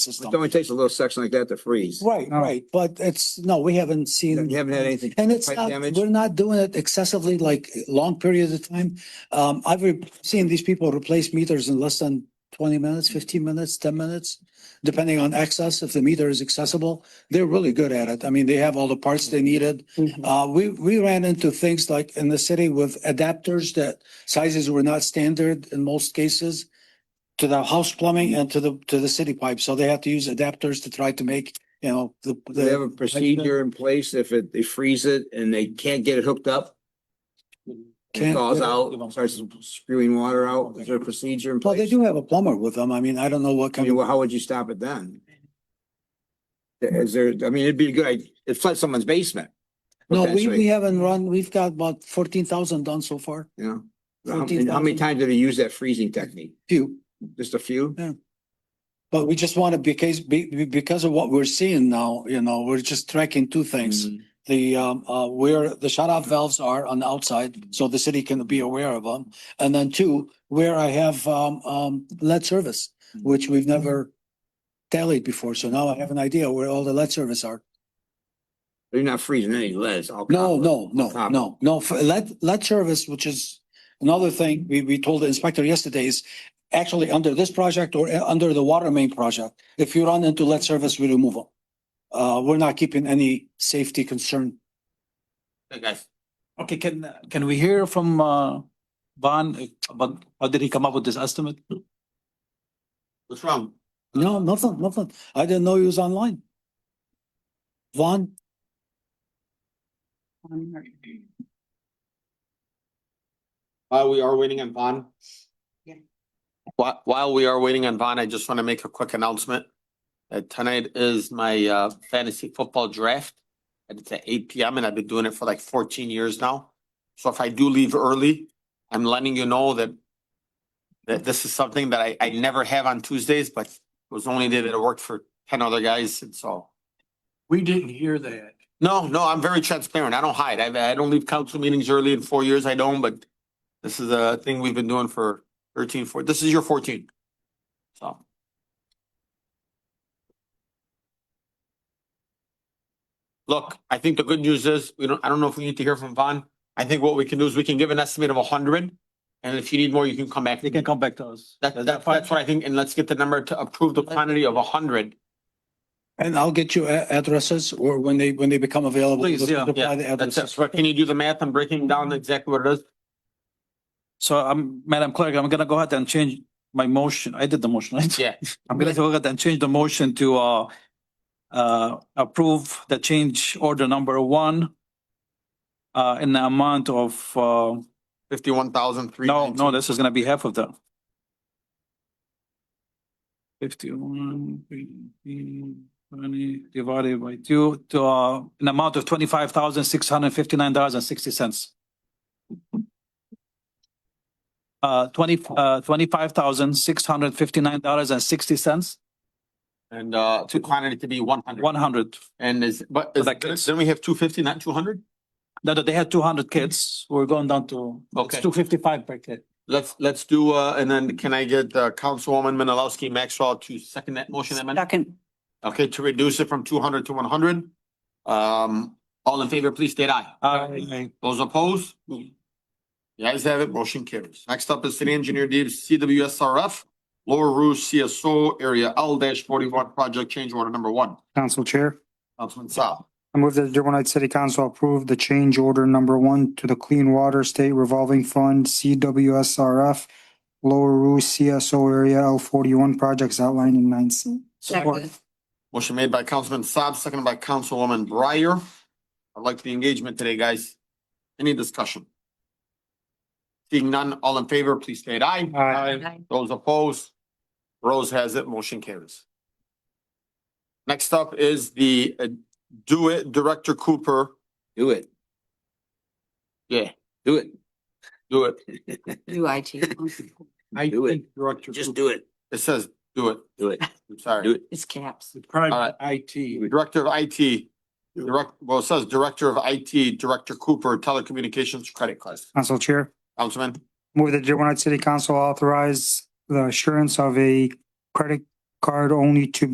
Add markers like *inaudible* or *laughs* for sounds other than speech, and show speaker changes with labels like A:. A: It
B: system.
A: only takes a little section like that to freeze.
B: Right, right, but it's, no, we haven't seen.
A: You haven't had anything.
B: And it's
A: pipe
B: not,
A: damage?
B: we're not doing it excessively like long periods of time. Um, I've re- seen these people replace meters in less than twenty minutes, fifteen minutes, ten minutes, depending on access, if the meter is accessible. They're really good at it. I mean, they have all the parts they needed.
A: Mm-hmm.
B: Uh, we, we ran into things like in the city with adapters that sizes were not standard in most cases to the house plumbing and to the, to the city pipe. So they have to use adapters to try to make, you know, the.
A: Do
B: the
A: They have a procedure in place if it, they freeze it and they can't get it hooked up, it
B: Can't-
A: thaws out, starts spewing water out, is there a procedure in
B: Well, they
A: place?
B: do have a plumber with them. I mean, I don't know what
A: I
B: kind
A: mean,
B: of,
A: well, how would you stop it then? Is there, I mean, it'd be a good, idea. it'd flood someone's basement.
B: no, we,
A: potentially,
B: we haven't run, we've got about fourteen thousand done so far,
A: You know, how many- how
B: 14,000.
A: many times did they use that freezing technique?
B: few.
A: Just a few?
B: But we just want to, because, be- be- because of what we're seeing now, you know, we're just tracking two things.
A: Mhm.
B: The, um, uh, where the shut off valves are on the outside, so the city can be aware of them. And then two, where I have, um, um, lead service, which we've never tallied before. So now I have an idea where all the lead service are.
A: They're not freezing any lead, it's all.
B: No,
A: copper.
B: no, no,
A: Copper.
B: no, no. For lead, lead service, which is another thing we, we told the inspector yesterday is actually under this project or uh, under the water main project, if you run into lead service, we remove them. Uh, we're not keeping any safety concern.
C: Okay, can, can we hear from, uh, Van, uh, about, how did he come up with this estimate?
D: What's wrong?
B: No, nothing, nothing. I didn't know he was online. Vaughn,
D: While we are waiting on Vaughn.
E: Yeah.
D: While, while we are waiting on Vaughn, I just want to make a quick announcement. Uh, tonight is my uh, fantasy football draft. And it's at eight P M and I've been doing it for like fourteen years now. So if I do leave early, I'm letting you know that that this is something that I, I never have on Tuesdays, but it was the only day that it worked for ten other guys and so.
F: We didn't hear that.
D: No, no, I'm very transparent. I don't hide. I, I don't leave council meetings early in four years. I don't, but this is a thing we've been doing for 13, 14. This is your fourteen. So. Look, I think the good news is, we don't, I don't know if we need to hear from Vaughn. I think what we can do is we can give an estimate of hundred. And if you need more, you can come back.
C: They can come back to us.
D: That, that, that's what I think, and let's get the number to approve the quantity of hundred.
B: and I'll get you a- addresses or when they, when they become available.
C: Please, yeah,
B: supply
D: yeah,
B: the
D: That's
B: addresses.
D: it. So Can you do the math? I'm breaking down exactly what it is.
C: So I'm, Madam Clerk, I'm gonna go ahead and change my motion. I did the motion, right?
D: Yeah.
C: *laughs* I'm gonna go ahead and change the motion to, uh, uh, approve the change order number one uh, in the amount of, uh,
D: Fifty-one thousand three.
C: no, no, this is gonna be half of that. Fifty-one, eighteen, twenty, divided by two, to, uh, an amount of twenty-five thousand, six hundred and fifty-nine dollars and sixty cents. Uh, twenty, uh, twenty-five thousand, six hundred and fifty-nine dollars and sixty cents,
D: And uh, to quantity to be one hundred.
C: one hundred.
D: And is, but
C: For that case.
D: is- then we have two fifty, not two hundred?
C: No, no, they had two hundred kids, we're going down to, it's
D: Okay.
C: two fifty-five per kid.
D: Let's, let's do, uh, and then can I get uh, Councilwoman Menalowski Maxwell to second that motion amendment?
E: Second.
D: Okay, to reduce it from two hundred to one hundred. Um, all in favor, please state aye.
C: Uh,
D: Those opposed? The ayes have it, motion carries. Next up is City Engineer Deep CWSRF, Lower Rouge CSO Area L forty-one Project Change Order Number One.
G: Council Chair,
D: Councilman Saab.
G: I move that the Dearborn Heights City Council approve the change order number one to the Clean Water State Revolving Fund, CWSRF, Lower Roo CSO Area L forty-one projects outlined in nine C.
E: Second.
D: Motion made by Councilman Saab, seconded by Councilwoman Breyer. I like the engagement today, guys. Any discussion? Seeing none, all in favor, please state aye.
G: Aye.
E: Aye.
D: Those opposed? Rose has it, motion carries. Next up is the uh, Do It Director Cooper.
A: Do it,
D: Yeah,
A: do it,
D: do it.
E: Do IT.
A: do it,
F: Director.
A: just do it,
D: It says do it.
A: do it,
D: I'm sorry.
A: do it.
E: It's caps.
F: Private IT.
D: Director of IT, direct, well, it says Director of IT, Director Cooper, Telecommunications Credit Card.
G: Council Chair,
D: Councilman?
G: move that the Dearborn Heights City Council authorize the assurance of a credit card only to